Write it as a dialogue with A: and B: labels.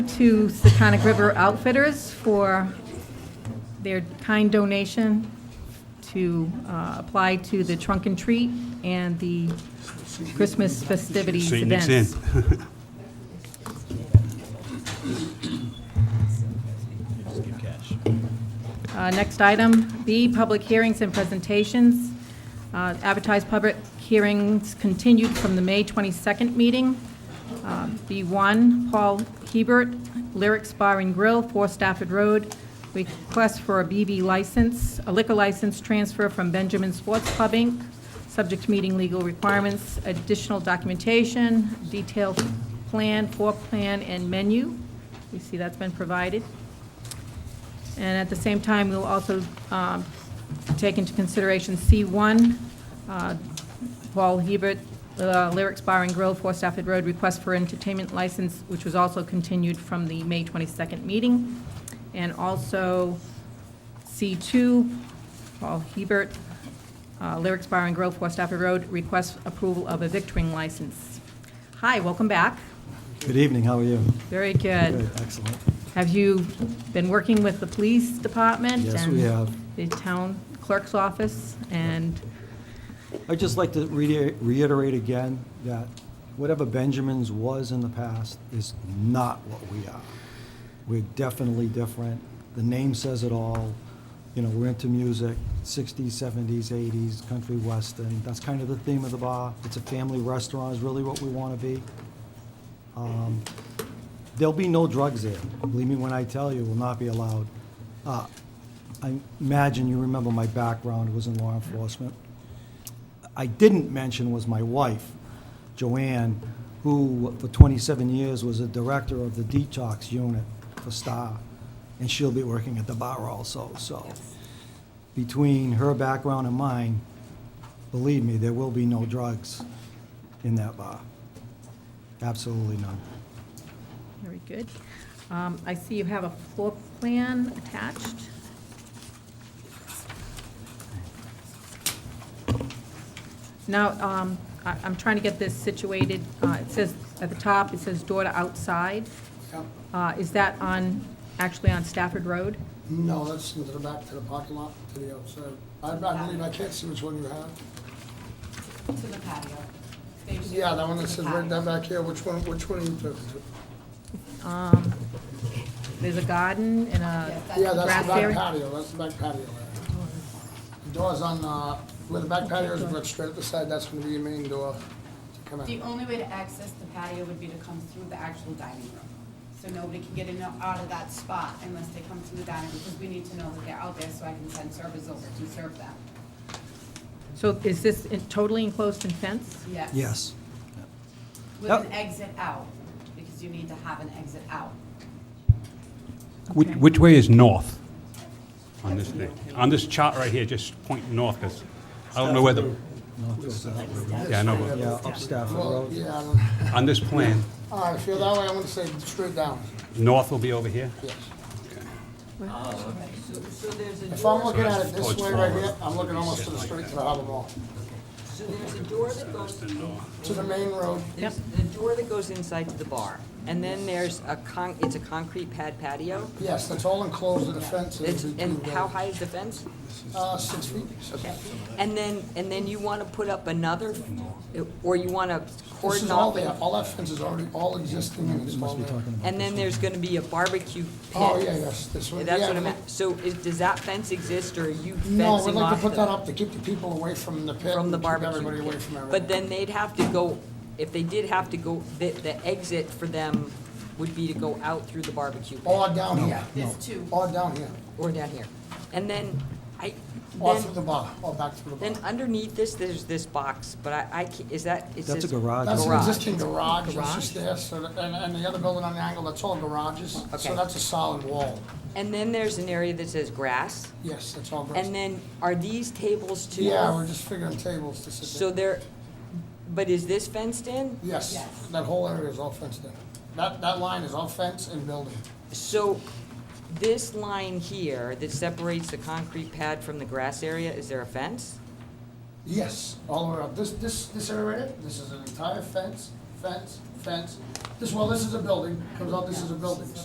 A: to Seconic River Outfitters for their kind donation to uh, apply to the trunk and treat and the Christmas festivities
B: See you next in.
A: events. Uh, Next item, B, public hearings and presentations. Uh, Advertised public hearings continued from the May 22nd meeting. Uh, B1, Paul Hebert, Lyrics Bar and Grill, 4 Stafford Road, request for a BV license, a liquor license transfer from Benjamin Sports Club, Inc., subject to meeting legal requirements, additional documentation, detailed plan, floor plan, and menu. We see that's been provided. And at the same time, we'll also um, take into consideration C1, uh, Paul Hebert, uh, Lyrics Bar and Grill, 4 Stafford Road, request for entertainment license, which was also continued from the May 22nd meeting. And also C2, Paul Hebert, uh, Lyrics Bar and Grill, 4 Stafford Road, request approval of a victoring license. Hi, welcome back.
C: Good evening, how are you?
A: Very good.
C: Excellent.
A: Have you been working with the police department?
C: Yes, we
A: and
C: have.
A: The town clerk's office, and,
C: I'd just like to reiter- reiterate again that whatever Benjamin's was in the past is not what we are. We're definitely different. The name says it all. You know, we're into music, 60s, 70s, 80s, country western. That's kind of the theme of the bar. It's a family restaurant is really what we want to be. Um, There'll be no drugs there. Believe me when I tell you, it will not be allowed. Uh, I imagine you remember my background was in law enforcement. I didn't mention was my wife, Joanne, who for 27 years was a director of the detox unit for Star, and she'll be working at the bar also, so. Between her background and mine, believe me, there will be no drugs in that bar. Absolutely none.
A: very good. Um, I see you have a floor plan attached. Now, um, I- I'm trying to get this situated. Uh, It says, at the top, it says door to outside. Uh, Is that on, actually on Stafford Road?
D: No, that's into the back, to the parking lot, to the outside. I I believe I can't see which one you have.
E: To the patio. There's
D: Yeah, that one that
E: the
D: says right
E: patio.
D: down back here, which one, which one are you talking to?
A: Um, There's a garden and a
E: Yes, that's-
D: Yeah, that's
A: Grass
D: the back
A: area?
D: patio, that's the back patio. area. The door's on, uh, where the back patio is, but straight up the side, that's gonna be your main door to come
E: The
D: in.
E: only way to access the patio would be to come through the actual dining room. So nobody can get in or out of that spot unless they come through the dining room, because we need to know that they're out there so I can send servers over to serve them.
A: So is this in- totally enclosed and fenced?
E: Yes.
C: Yes.
E: With an exit out, because you need to have an exit out.
B: Which,
A: Okay.
B: which way is north on this thing? On this chart right here, just point north, because I don't know where the, yeah, I know, but
C: Yeah, up Stafford
D: Well,
C: Road.
D: yeah, I don't-
B: on this plan,
D: all right, if you're that way, I'm gonna say straight down,
B: north will be over here?
D: yes.
F: So, so there's a
D: If I'm
F: door,
D: looking at it this
B: Towards
D: way right
B: forward.
D: here, I'm looking almost to the street, to the harbor mall,
F: so there's a door that goes,
D: to the main road.
F: there's the door that goes inside to the bar. And then there's a con, it's a concrete pad patio.
D: Yes, that's all enclosed in a fence.
F: It's,
D: between
F: and
D: the-
F: how high is the fence?
D: Uh, six feet.
F: Okay. And then, and then you want to put up another, or you want to
D: This is
F: cordon
D: all
F: off.
D: there, all that fence is already, all existing and it's all there.
F: And then there's going to be a barbecue pit.
D: Oh, yeah, yes, this one, yeah.
F: That's what I
D: we'd
F: meant. So is, does that fence exist or are you
D: like- No, we'd
F: fencing
D: like to
F: off
D: put that
F: the,
D: up to keep the people away from the pit.
F: from the
D: and
F: barbecue?
D: Keep everybody away
F: pit?
D: from everything.
F: But then they'd have to go, if they did have to go, the, the exit for them would be to go out through the barbecue pit.
D: Or down here,
E: Yeah, there's two.
D: or down here,
F: or down here. And then I,
D: or through the
F: then,
D: bar, or back through the
F: then
D: bar.
F: underneath this, there's this box, but I, I, ca- is that, it
C: That's
F: says.
C: a garage.
D: That's an
F: garage.
D: existing garage, it's just
F: Garage?
D: there, so, that- and, and the other building on the angle, that's all garages. So
F: Okay.
D: that's a solid wall.
F: And then there's an area that says grass,
D: Yes, that's all
F: and
D: garage.
F: then are these tables too?
D: Yeah, we're just figuring tables to sit
F: So
D: there.
F: they're, but is this fenced in?
D: Yes,
E: Yes.
D: that whole area is all fenced in. That, that line is all fence and building.
F: So this line here that separates the concrete pad from the grass area, is there a fence?
D: Yes, all the way up. This, this, this area right here, this is an entire fence fence, fence. This, well, this is a building, comes out, this is a building.